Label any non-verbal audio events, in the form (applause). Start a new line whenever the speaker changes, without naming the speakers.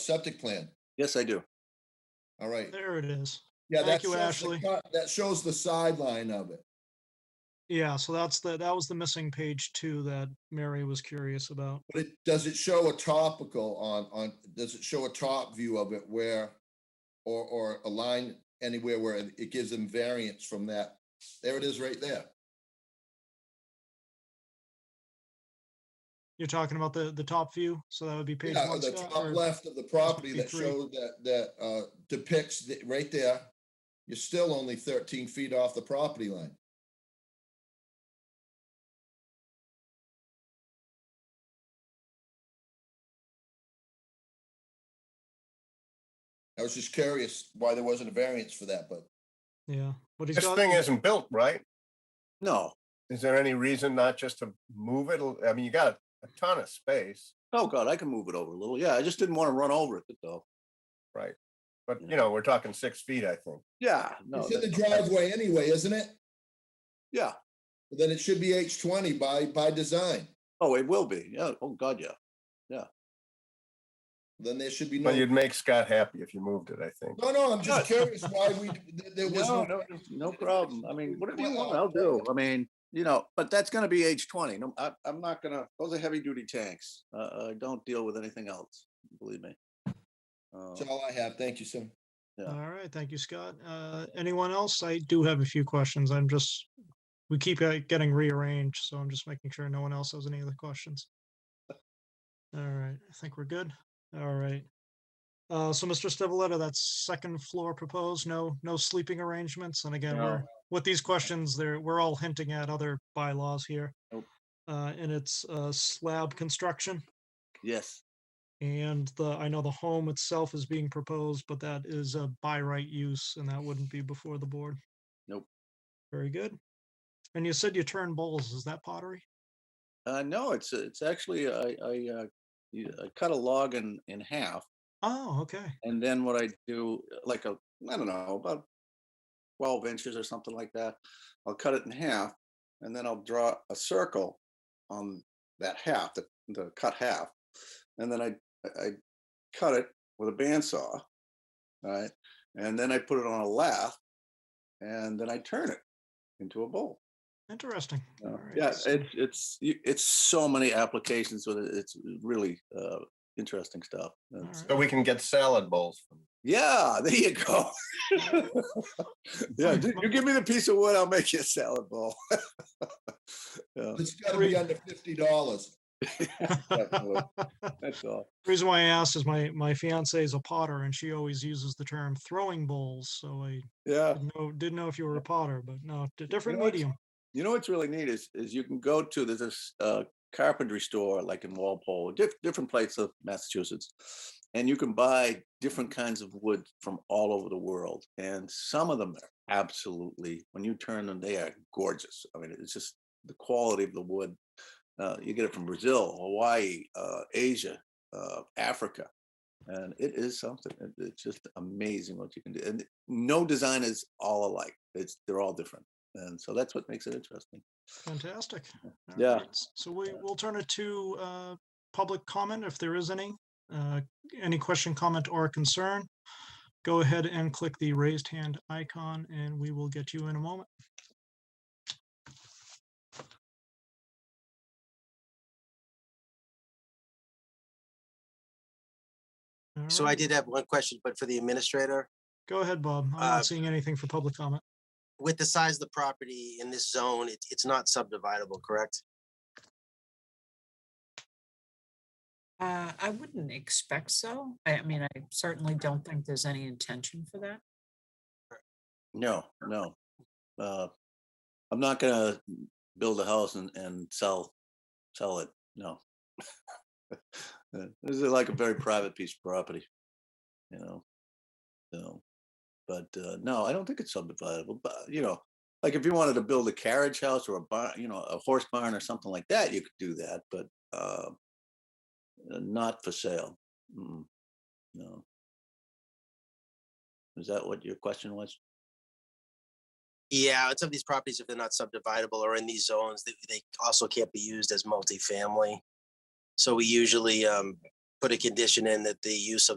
septic plan.
Yes, I do.
All right.
There it is.
Yeah, that
Thank you,
shows, the
Ashley.
co- that shows the sideline of it.
Yeah, so that's the, that was the missing page two that Mary was curious about.
But it, does it show a topical on, on, does it show a top view of it where, or, or a line anywhere where it it gives them variance from that? There it is right there.
You're talking about the, the top view, so that would be page
Yeah,
one.
the
Scott,
top
or-
left of the property that
53.
showed that, that uh, depicts, the- right there, you're still only 13 feet off the property line. I was just curious why there wasn't a variance for that, but
Yeah, but he's
This
got,
thing isn't built, right?
No.
Is there any reason not just to move it? I mean, you got a ton of space,
Oh, God, I can move it over a little. Yeah, I just didn't want to run over it though.
but you know, we're talking six feet, I think.
Yeah, no,
it's in the
that-
driveway anyway, isn't it?
yeah.
Then it should be H20 by, by design.
Oh, it will be. Yeah. Oh, God, yeah.
Then there should be no,
But you'd make Scott happy if you moved it, I think.
no, no, I'm just curious why we, there- there was
No,
no
no, no problem. I mean, whatever you want,
Wow.
I'll do. I mean, you know, but that's gonna be H twenty. No, I, I'm not gonna, those are heavy duty tanks. Uh, I don't deal with anything else, believe me. Uh,
That's all I have. Thank you, sir.
all right, thank you, Scott. Uh, anyone else? I do have a few questions. I'm just, we keep uh, getting rearranged, so I'm just making sure no one else has any other questions. All right, I think we're good. All right. Uh, so Mr. Stivaleta, that second floor proposed, no, no sleeping arrangements. And again,
No.
we're, with these questions, there, we're all hinting at other bylaws here.
Nope.
Uh, and it's, uh, slab construction.
Yes,
And the, I know the home itself is being proposed, but that is a by right use and that wouldn't be before the board.
Nope.
Very good. And you said you turn bowls. Is that pottery?
uh, no, it's, it's actually, I, I, uh, you- I cut a log in, in half
Oh, okay.
And then what I do, uh, like a, I don't know, about 12 inches or something like that. I'll cut it in half and then I'll draw a circle on that half, the, the cut half. And then I, I- I cut it with a bandsaw. All right. And then I put it on a lathe and then I turn it into a bowl.
Interesting.
Uh,
All right,
Yeah,
so-
it's, it's, y- it's so many applications with it. It's really, uh, interesting stuff.
all
It's-
right.
So we can get salad bowls from.
yeah, there you go. (laughs) yeah,
Fine,
d-
fine.
you give me the piece of wood, I'll make you a salad bowl. (laughs) yeah,
It's gotta be
Three.
under fifty dollars.
definitely. That's all.
Reason why I asked is my, my fiance is a potter and she always uses the term throwing bowls. So I
Yeah,
didn't know, didn't know if you were a potter, but no, d- different
know, it's-
medium.
you know what's really neat is is you can go to there's this uh, carpentry store like in Walpole, diff, different places of Massachusetts, and you can buy different kinds of wood from all over the world, and some of them are absolutely when you turn them, they are gorgeous. I mean, it's just the quality of the wood. Uh, you get it from Brazil, Hawaii, uh, Asia, uh, Africa, and it is something. It, it's just amazing what you can do. And no design is all alike. It's they're all different, and so that's what makes it interesting.
Fantastic. All
Yeah.
right, s- So we, we'll turn it to uh, public comment if there is any. Uh, Any question, comment, or concern? Go ahead and click the raised hand icon and we will get you in a moment. All
So I
right,
did have one question, but for the administrator,
Go ahead, Bob. I'm
uh,
not seeing anything for public comment.
with the size of the property in this zone, it, it's not subdividable, correct?
Uh, I wouldn't expect so. I, I mean, I certainly don't think there's any intention for that.
No, no, uh, I'm not gonna build a house and, and sell sell it. No, (laughs) Uh, this is like a very private piece of property, you know. So, but uh, no, I don't think it's subdividable. But you know, like if you wanted to build a carriage house or a barn, you know, a horse barn or something like that, you could do that. But uh, uh, not for sale. Mm, no. Is that what your question was?
Yeah, it's of these properties, if they're not subdividable or in these zones, they, they also can't be used as multifamily. So we usually, um, put a condition in that the use of